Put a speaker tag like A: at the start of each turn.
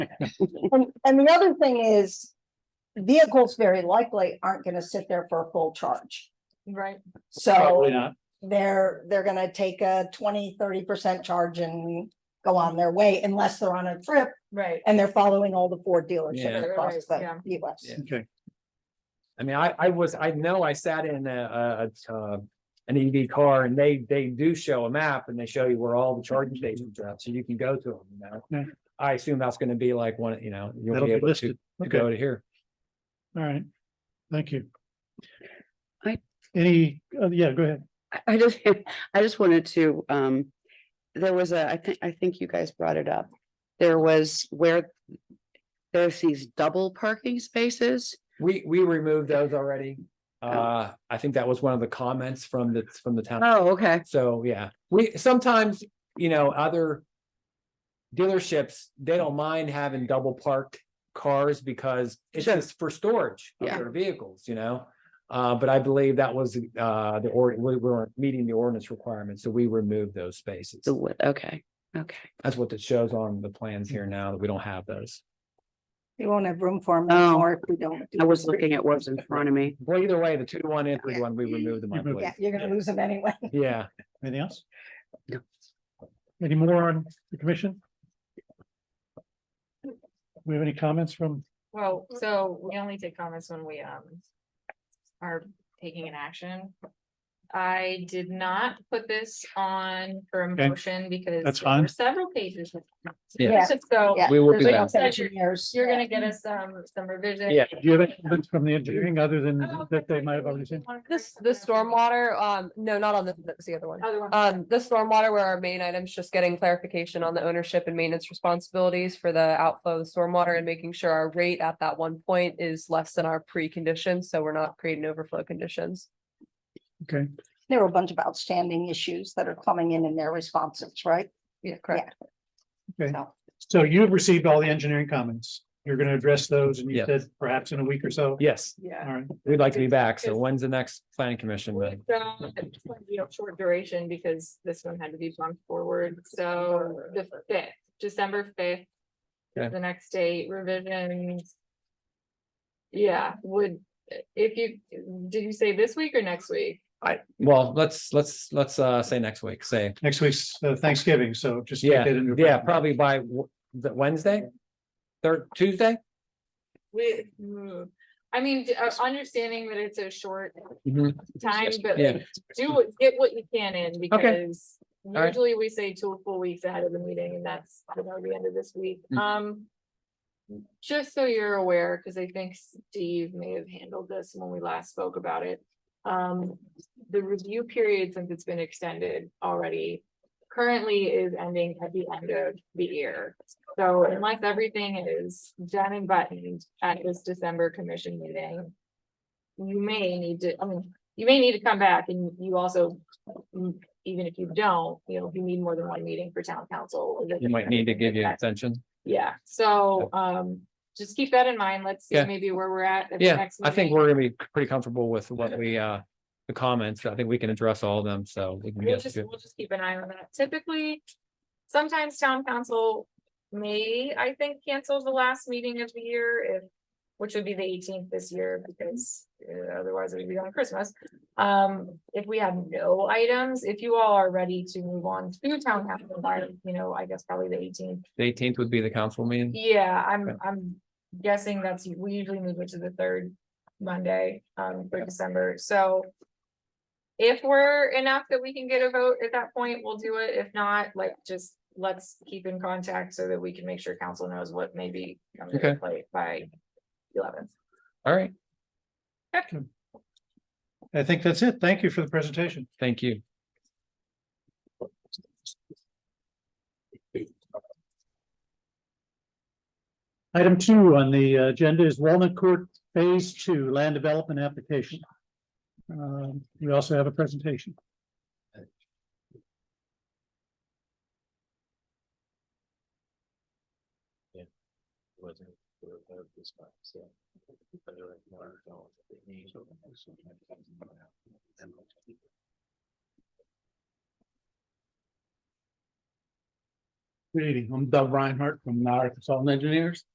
A: And, and the other thing is, vehicles very likely aren't gonna sit there for a full charge.
B: Right.
A: So
C: Probably not.
A: they're, they're gonna take a 20 30 percent charge and go on their way unless they're on a trip
B: Right.
A: and they're following all the four
C: Yeah.
A: dealerships across
B: Yeah.
A: the US.
C: Yeah. I mean, I, I was, I know I sat in a, a, uh, an EV car and they, they do show a map and they show you where all the charging stations are at, so you can go to them, you
D: Mm-hmm. Yeah.
C: know? I assume that's gonna be like one, you know, you'll
D: That'll
C: be
D: be
C: able to,
D: listed.
C: to
D: Okay,
C: go
D: all
C: to here.
D: right. Thank you.
E: I-
D: Any, uh, yeah, go ahead.
E: I- I just, I just wanted to, um, there was a, I think, I think you guys brought it up. There was where there's these double parking spaces.
C: We, we removed those already. Uh, I think that was one of the comments from the, from the town.
E: Oh, okay.
C: So, yeah, we, sometimes, you know, other dealerships, they don't mind having double parked cars because it's
E: Sure.
C: just for storage of
E: Yeah.
C: their vehicles, you know? Uh, but I believe that was, uh, the, or, we weren't meeting the ordinance requirements, so we removed those spaces.
E: The wood, okay, okay.
C: That's what it shows on the plans here now, that we don't have those.
A: You won't have room for them
E: Oh.
A: anymore if we don't. do
E: I was
A: this.
E: looking at what's in front of me.
C: Well, either way, the two to one and three
E: Yeah.
C: to one, we removed them, I
D: You removed
A: Yeah,
C: believe.
A: you're gonna lose them anyway.
C: Yeah.
D: Anything else?
E: No.
D: Any more on the commission? We have any comments from,
B: Well,
F: Mm-hmm.
B: so we only take comments when we, um, are taking an action. I did not put this on for a
D: Okay,
B: motion because.
D: that's
B: there were
D: fine.
B: Several pages. of comments.
C: Yeah.
B: So
A: Yeah.
C: We will
A: There's
C: do
A: no
C: that.
A: engineers.
B: you're gonna get us, um, some revision.
C: Yeah.
D: do you have any comments from the engineering other than that they might have already seen?
F: This, the stormwater, um, no, not on the, that's the other one.
B: Other one.
F: Um, the stormwater were our main items, just getting clarification on the ownership and maintenance responsibilities for the outflow of the stormwater and making sure our rate at that one point is less than our pre-condition, so we're not creating overflow conditions.
D: Okay,
A: There were a bunch of outstanding issues that are coming in in their responses, right?
F: Yeah, correct.
D: okay.
A: No.
D: So you've received all the engineering comments. You're going to address those and you
C: Yeah.
D: said perhaps in a week or so.
C: Yes,
B: Yeah.
D: All right,
C: we'd like to be back. So when's the next planning commission?
B: So,
C: meeting?
B: it's gonna be a Short duration because this one had to be bumped forward, so the fifth, December fifth.
C: Okay.
B: The next date revisions. Yeah, would, if you, did you say this week or next week?
C: I, well, let's, let's, let's, uh, say next week, say,
D: next week's uh, Thanksgiving, so just. take that into
C: yeah,
D: account.
C: probably by w- the Wednesday? Third, Tuesday?
B: We, hmm, I mean, d- uh, understanding that it's a short time, but
C: Yeah,
B: do, what- get what you can in because
C: right.
B: usually we say two or four weeks ahead of the meeting and that's, you know, the end of this week.
C: Mhm.
B: Um. Just so you're aware, because I think Steve may have handled this when we last spoke about it. Um, the review period, since it's been extended already, currently is ending at the end of the year. So unless everything is done and buttoned at this December commission meeting, you may need to, I mean, you may need to come back and you also, mm, even if you don't, you know, if you need more than one meeting for town council.
C: you might need to give you an extension.
B: Yeah, so, um, just keep that in mind. Let's see
C: Yeah.
B: maybe where we're at. at the
C: Yeah,
B: next
C: I think
B: meeting.
C: we're gonna be pretty comfortable with what we, uh, the comments. I think we can address all of them, so we can
B: We'll
C: get
B: just,
C: to.
B: we'll just keep an eye on that. Typically, sometimes town council may, I think, cancel the last meeting of the year if. Which would be the eighteenth this year because uh, otherwise it would be on Christmas. Um, if we have no items, if you all are ready to move on to town council, by, you know, I guess probably the eighteenth.
C: The eighteenth would be the council meeting.
B: Yeah,
C: Okay.
B: I'm, I'm guessing that's, we usually move it to the third Monday, um, for December, so. If we're enough that we can get a vote at that point, we'll do it. If not, like, just let's keep in contact so that we can make sure council knows what may be coming to
C: Okay.
B: play by eleventh.
C: All right,
D: I think that's it. Thank you for the presentation.
C: thank you.
D: Item two on the agenda is Walnut Court Phase Two Land Development Application. Um, we also have a presentation. Good evening, I'm Doug Reinhardt from Arkansas Engineers.